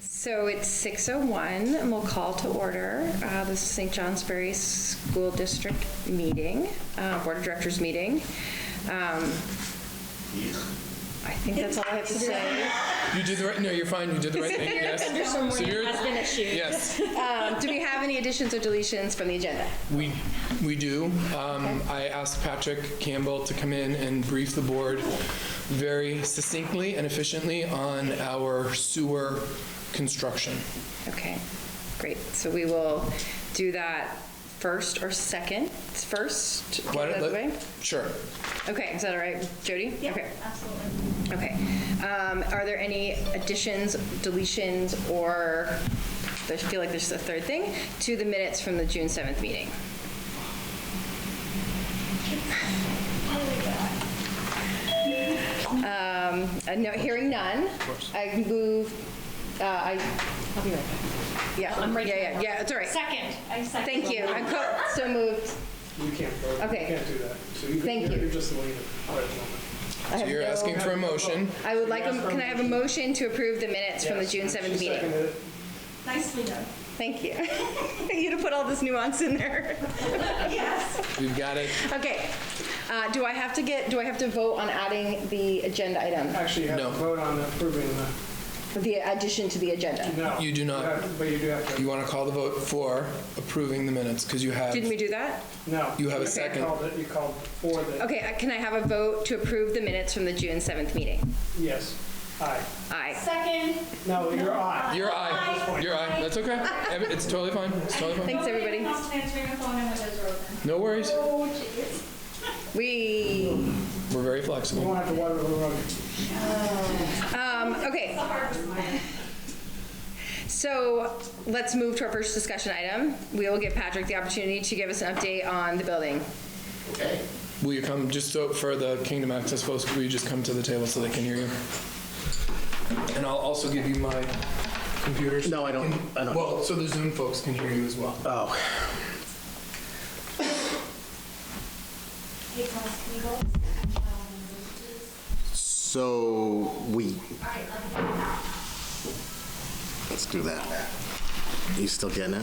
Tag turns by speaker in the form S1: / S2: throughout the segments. S1: So it's 6:01, and we'll call to order uh, the St. Johnsbury School District meeting, uh, Board of Directors meeting. Um, I think that's all I have to say.
S2: You did the right, no, you're fine, you did the right thing, yes.
S3: someone
S2: So you're-
S3: has been issued.
S2: Yes,
S1: Um, Do we have any additions or deletions from the agenda?
S2: we, we do. Um, I asked Patrick Campbell to come in and brief the board very succinctly and efficiently on our sewer construction.
S1: Okay, great. So we will do that first or second? First? get
S2: Why
S1: it out
S2: don't-
S1: of the way?
S2: Sure.
S1: Okay, is that all right, Jody? Okay.
S3: absolutely.
S1: Okay. Um, Are there any additions, deletions, or, I feel like there's a third thing, to the minutes from the June 7th meeting? Um, uh, No, hearing none. I move, uh, I, I'll be right back. Yeah,
S3: I'm right
S1: yeah,
S3: here.
S1: yeah, yeah, it's all right.
S3: Second, I second.
S1: Thank you. I'm co- so moved.
S4: You can't vote. You
S1: Okay.
S4: can't do that. So you-
S1: Thank
S4: you're-
S1: you.
S4: You're just waiting for it at the moment.
S1: I
S2: So
S1: have
S2: you're
S1: no-
S2: asking for a motion.
S1: I would like, a- can I have a motion to approve the minutes from the June 7th
S4: She
S1: meeting?
S4: seconded it.
S3: Nicely done.
S1: Thank you. you to put all this nuance in there.
S3: Yes.
S2: We've got it.
S1: Okay. Uh, do I have to get? Do I have to vote on adding the agenda item,
S4: Actually, you have
S2: No.
S4: to vote on approving
S1: the addition to the agenda?
S4: the, no.
S2: You do not.
S4: have- But you do have
S2: You
S4: to,
S2: want to call the vote for approving the minutes, because you have,
S1: Didn't we do that?
S4: no.
S2: You have a
S4: You
S2: second.
S4: called it- You called for the,
S1: Okay. uh, Can I have a vote to approve the minutes from the June seventh meeting?
S4: yes, aye.
S1: Aye.
S3: Second.
S4: No, you're aye.
S2: your eye,
S3: Aye.
S2: your eye, that's okay. Ev- It's totally fine, it's totally fine.
S1: Thanks, everybody.
S3: Nobody wants to answer your phone and windows are open.
S2: No worries,
S3: Oh, jeez.
S1: We.
S2: we're very
S4: You
S2: flexible.
S4: won't have to water the road.
S1: Um, okay.
S3: The hardest one.
S1: So let's move to our first discussion item. We will give Patrick the opportunity to give us an update on the building.
S5: Okay,
S2: Will you come, just so for the Kingdom Access folks, will you just come to the table so they can hear you? And I'll also give you my computers.
S5: No, I don't- I don't.
S2: Well, so the Zoom folks can hear you as well.
S5: oh,
S3: Hey, Thomas, can you go?
S5: so we. Let's do that. You still getting it?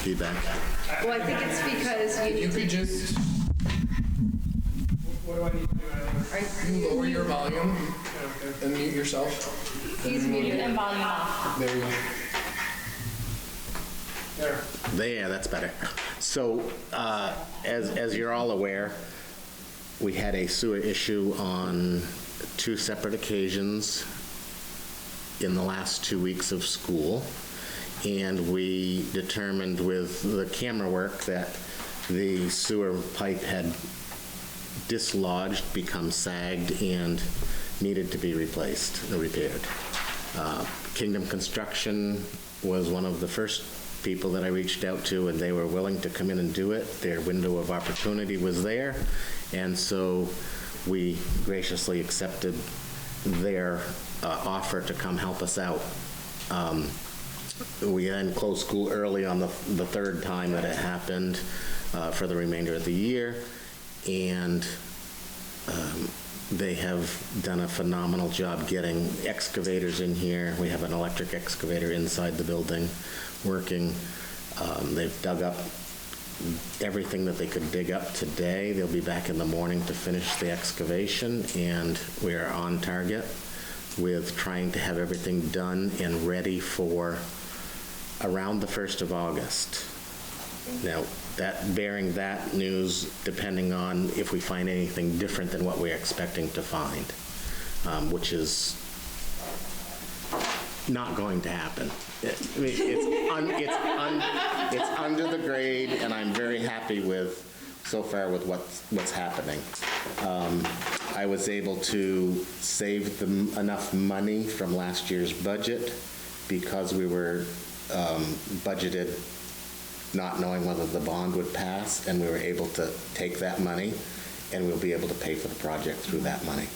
S5: Feedback?
S1: Well, I think it's because you
S2: You
S1: need to.
S2: could just
S4: What do I need to do? I
S2: lower your volume and mute yourself.
S1: He's muted.
S3: And volume off.
S2: There you go.
S4: There.
S5: There, that's better. So, uh, as, as you're all aware, we had a sewer issue on two separate occasions in the last two weeks of school. And we determined with the camera work that the sewer pipe had dislodged, become sagged, and needed to be replaced, or repaired. Uh, Kingdom Construction was one of the first people that I reached out to, and they were willing to come in and do it. Their window of opportunity was there, and so we graciously accepted their uh, offer to come help us out. Um, we then closed school early on the, the third time that it happened uh, for the remainder of the year. And um, they have done a phenomenal job getting excavators in here. We have an electric excavator inside the building working. Um, They've dug up everything that they could dig up today. They'll be back in the morning to finish the excavation, and we are on target with trying to have everything done and ready for around the 1st of August. Now, that, bearing that news, depending on if we find anything different than what we're expecting to find, um, which is not going to happen. It- I mean, It's, un- it's, un- it's under the grade, and I'm very happy with, so far with what's, what's happening. Um, I was able to save them enough money from last year's budget because we were um, budgeted not knowing whether the bond would pass, and we were able to take that money, and we'll be able to pay for the project through that money.